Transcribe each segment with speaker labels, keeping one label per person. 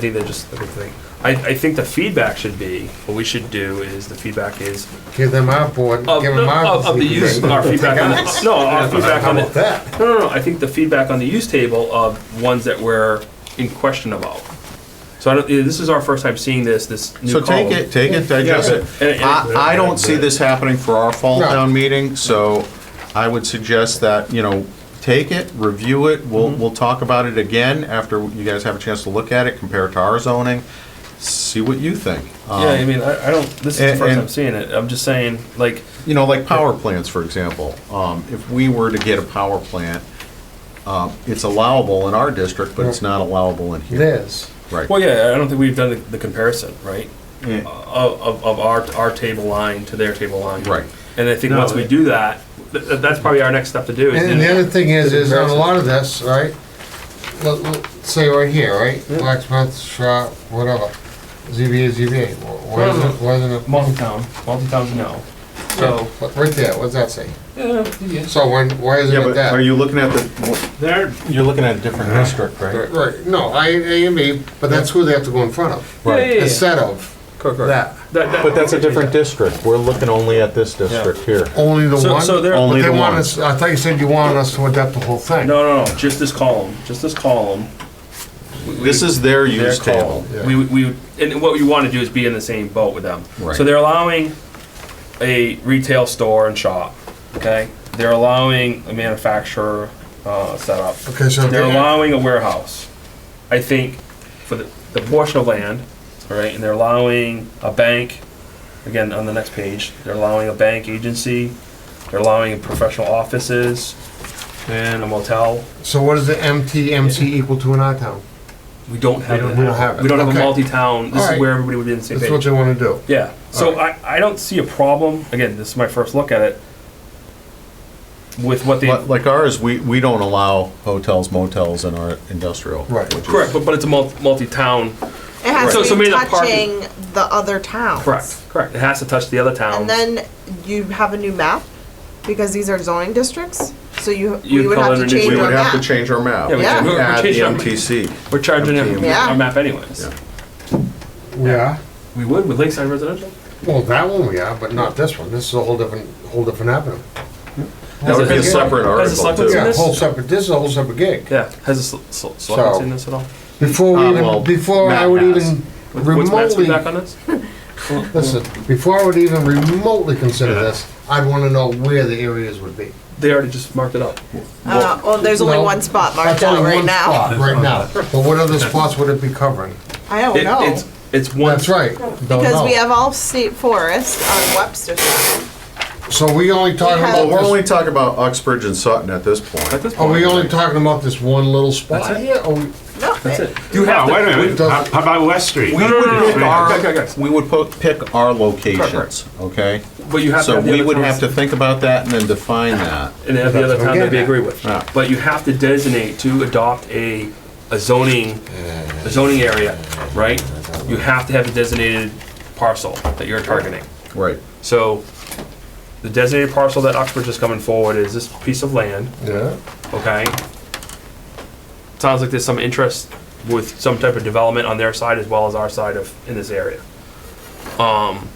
Speaker 1: I think they're just, I think, I, I think the feedback should be, what we should do is, the feedback is,
Speaker 2: Give them our board,
Speaker 1: of,
Speaker 2: give them
Speaker 1: no,
Speaker 2: our.
Speaker 1: of, of the use, our feedback on, the- no, our feedback
Speaker 2: How
Speaker 1: on
Speaker 2: about
Speaker 1: the,
Speaker 2: that?
Speaker 1: no, no, no, I think the feedback on the use table of ones that we're in question about. So I don't, this is our first time seeing this, this new
Speaker 3: So
Speaker 1: column.
Speaker 3: take it, take it, digest
Speaker 1: Yeah.
Speaker 3: it.
Speaker 1: And- and-
Speaker 3: I, I don't see this happening for our fall
Speaker 2: No.
Speaker 3: town meeting, so I would suggest that, you know, take it, review it, we'll,
Speaker 1: Mm-hmm.
Speaker 3: we'll talk about it again after you guys have a chance to look at it, compare it to our zoning, see what you think. Um,
Speaker 1: Yeah, I mean, I, I don't, this is the
Speaker 3: and-
Speaker 1: first
Speaker 3: and-
Speaker 1: time seeing it, I'm just saying, like,
Speaker 3: You know, like power plants, for example, um, if we were to get a power plant, um, it's allowable in our district, but it's not allowable in here.
Speaker 2: Liz,
Speaker 3: Right.
Speaker 1: well, yeah, I don't think we've done the, the comparison, right?
Speaker 3: Yeah.
Speaker 1: Of, of, of our, our table line to their table line.
Speaker 3: Right.
Speaker 1: And I think
Speaker 4: No,
Speaker 1: once we
Speaker 4: it-
Speaker 1: do that, th- th- that's probably our next step to do. is
Speaker 2: and
Speaker 1: do
Speaker 2: the
Speaker 1: that.
Speaker 2: other thing is, is on a lot of this, right? Let, let, say right here, right, blacksmith shop, whatever, ZBA, ZBA, wh- why isn't, it- why isn't it?
Speaker 1: Multi-town, multi-town's no. So,
Speaker 2: What- Right there, what's that say?
Speaker 1: yeah, yeah.
Speaker 2: So when, why isn't
Speaker 3: Yeah,
Speaker 2: it
Speaker 3: but are
Speaker 2: that?
Speaker 3: you looking at the,
Speaker 4: There,
Speaker 3: you're looking at a different district, right?
Speaker 2: Right, no, I, A and B, but that's who they have to go in front of,
Speaker 1: Yeah, yeah, yeah.
Speaker 2: instead of
Speaker 1: Correct, correct.
Speaker 2: that,
Speaker 1: That- that-
Speaker 3: But that's a different district. We're looking only at this district here.
Speaker 2: only the
Speaker 1: So,
Speaker 2: one?
Speaker 1: so there,
Speaker 3: Only
Speaker 2: But they
Speaker 3: the
Speaker 2: want
Speaker 3: one.
Speaker 2: us, I thought you said you wanted us to adapt the whole thing.
Speaker 1: no, no, no, just this column, just this column.
Speaker 3: This is their
Speaker 1: their
Speaker 3: use
Speaker 1: call.
Speaker 3: table.
Speaker 2: Yeah.
Speaker 1: We, we, and what we want to do is be in the same boat with them.
Speaker 3: Right.
Speaker 1: So they're allowing a retail store and shop, okay? They're allowing a manufacturer, uh, setup.
Speaker 2: Okay, so
Speaker 1: They're
Speaker 2: they-
Speaker 1: allowing a warehouse, I think, for the, the portion of land, all right, and they're allowing a bank, again, on the next page, they're allowing a bank agency, they're allowing professional offices, and a motel.
Speaker 2: So what is the MTMC equal to in our town?
Speaker 1: We don't have
Speaker 2: don't-
Speaker 1: that.
Speaker 2: we don't have it.
Speaker 1: We don't have a
Speaker 2: Okay.
Speaker 1: multi-town, this
Speaker 2: All
Speaker 1: is
Speaker 2: right.
Speaker 1: where everybody would be in the same
Speaker 2: That's what
Speaker 1: page.
Speaker 2: they wanna do.
Speaker 1: Yeah, so I, I don't see a problem, again, this is my first look at it, with what they,
Speaker 3: But Like ours, we, we don't allow hotels, motels in our industrial.
Speaker 2: Right.
Speaker 3: which is-
Speaker 1: correct, but, but it's a mul- multi-town,
Speaker 5: It has
Speaker 1: So-
Speaker 5: to
Speaker 1: so
Speaker 5: be
Speaker 1: maybe the parking-
Speaker 5: touching the other towns.
Speaker 1: correct, correct. It has to touch the other towns.
Speaker 5: And then you have a new map because these are zoning districts. So you,
Speaker 1: You'd
Speaker 5: we would
Speaker 1: call
Speaker 5: have
Speaker 1: it a
Speaker 5: to
Speaker 1: new-
Speaker 5: change
Speaker 3: We
Speaker 5: our
Speaker 3: would have to
Speaker 5: map.
Speaker 3: change our map.
Speaker 1: Yeah, we
Speaker 5: Yeah.
Speaker 1: can- we're- we're
Speaker 3: Add the
Speaker 1: changing our-
Speaker 3: MTC.
Speaker 1: We're charging him
Speaker 5: Yeah.
Speaker 1: our map anyways.
Speaker 3: Yeah.
Speaker 2: We are,
Speaker 1: We would with Lakeside Residential.
Speaker 2: well, that one we are, but not this one, this is a whole different, whole different avenue.
Speaker 3: That would be a
Speaker 1: Has it-
Speaker 3: separate
Speaker 1: has it
Speaker 3: article
Speaker 1: selected
Speaker 3: too.
Speaker 2: Yeah,
Speaker 1: this- Uh,
Speaker 2: whole separate, this is a whole separate gig.
Speaker 1: Yeah, has the selectmen seen this at all?
Speaker 2: Before
Speaker 3: Uh,
Speaker 2: we
Speaker 3: well,
Speaker 2: even, before I
Speaker 3: Matt
Speaker 2: would
Speaker 3: has.
Speaker 2: even
Speaker 1: What- What's Matt's
Speaker 2: remotely,
Speaker 1: feedback on this?
Speaker 2: listen, before I would even remotely consider this, I'd wanna know where the areas would be.
Speaker 1: They already just marked it up.
Speaker 5: Uh, well, there's only
Speaker 2: No,
Speaker 5: one spot
Speaker 2: That's
Speaker 5: marked
Speaker 2: only
Speaker 5: out right
Speaker 2: one
Speaker 5: now.
Speaker 2: spot Right now, but what other spots would it be covering?
Speaker 5: I don't
Speaker 1: It-
Speaker 5: know.
Speaker 1: It's, it's one.
Speaker 2: Oh, That's right, don't
Speaker 5: because we
Speaker 2: know.
Speaker 5: have all state forest on Webster side.
Speaker 2: So we only talking
Speaker 5: have-
Speaker 3: Well, we're
Speaker 2: about
Speaker 3: only talking about Uxbridge and Sutton at this
Speaker 1: At
Speaker 3: point.
Speaker 1: this
Speaker 2: this, are
Speaker 1: point.
Speaker 2: we only talking about this one little
Speaker 1: That's
Speaker 2: spot
Speaker 1: it.
Speaker 2: here? or we-
Speaker 5: No,
Speaker 1: That's it. You
Speaker 4: yeah,
Speaker 1: have to.
Speaker 4: wait a
Speaker 1: we-
Speaker 4: minute, how how about West Street?
Speaker 3: We would pick
Speaker 1: Okay, okay,
Speaker 3: our,
Speaker 1: guys.
Speaker 3: we would po- pick our locations, okay?
Speaker 1: But you have to
Speaker 3: So
Speaker 1: have the
Speaker 3: we
Speaker 1: other
Speaker 3: would
Speaker 1: towns-
Speaker 3: have to think about that and then define that.
Speaker 1: And have the other
Speaker 2: That's what I'm
Speaker 1: town that we
Speaker 2: getting at.
Speaker 1: agree with.
Speaker 3: Yeah.
Speaker 1: But you have to designate to adopt a, a zoning, a zoning area, right? You have to have a designated parcel that you're targeting.
Speaker 3: Right.
Speaker 1: So the designated parcel that Oxbridge is coming forward is this piece of land.
Speaker 2: Yeah.
Speaker 1: okay? Sounds like there's some interest with some type of development on their side as well as our side of, in this area. Um,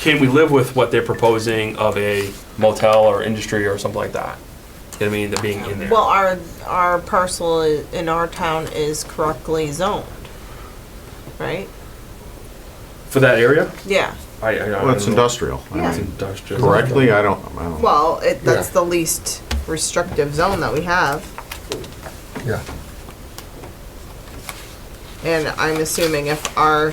Speaker 1: can we live with what they're proposing of a motel or industry or something like that? You know what I mean, the being in there.
Speaker 5: Well, our our parcel i- in our town is correctly zoned, right?
Speaker 1: For that area?
Speaker 5: Yeah.
Speaker 1: I, I, I don't
Speaker 3: Well, it's
Speaker 1: know.
Speaker 3: industrial. I
Speaker 5: Yeah.
Speaker 1: It's
Speaker 3: mean,
Speaker 1: industrial.
Speaker 3: Correctly, I don't, I don't.
Speaker 5: Well, it, that's
Speaker 2: Yeah.
Speaker 5: the least restrictive zone that we have.
Speaker 2: Yeah.
Speaker 5: And I'm assuming if our,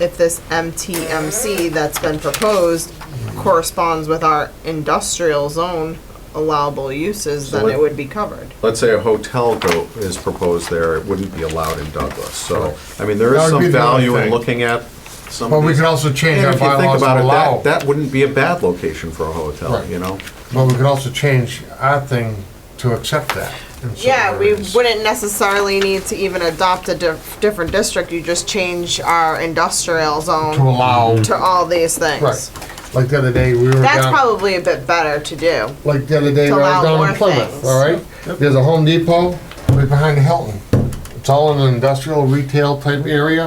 Speaker 5: if this MTMC that's been proposed corresponds with our industrial zone allowable uses, then
Speaker 3: let-
Speaker 5: it would be covered.
Speaker 3: let's say a hotel go, is proposed there, it wouldn't be allowed in Douglas, so, I mean, there
Speaker 2: That
Speaker 3: is
Speaker 2: would
Speaker 3: some
Speaker 2: be the only
Speaker 3: value in
Speaker 2: thing.
Speaker 3: looking at some
Speaker 2: But
Speaker 3: of
Speaker 2: we
Speaker 3: these.
Speaker 2: could also change
Speaker 3: And
Speaker 2: our
Speaker 3: if you think
Speaker 2: bylaws to
Speaker 3: about it,
Speaker 2: allow,
Speaker 3: that, that wouldn't be a bad location for a hotel,
Speaker 2: Right.
Speaker 3: you know?
Speaker 2: but we could also change our thing to accept that. in certain
Speaker 5: Yeah, we
Speaker 2: areas.
Speaker 5: wouldn't necessarily need to even adopt a dif- different district, you just change our industrial
Speaker 2: To
Speaker 5: zone
Speaker 2: allow,
Speaker 5: to all these things.
Speaker 2: right, like the other day, we were
Speaker 5: That's
Speaker 2: down,
Speaker 5: probably a bit better to do.
Speaker 2: like the other day,
Speaker 5: to
Speaker 2: we were
Speaker 5: allow
Speaker 2: down
Speaker 5: more
Speaker 2: in Plymouth,
Speaker 5: things.
Speaker 2: all right? There's a Home Depot right behind the Hilton. it's all in an industrial retail type area.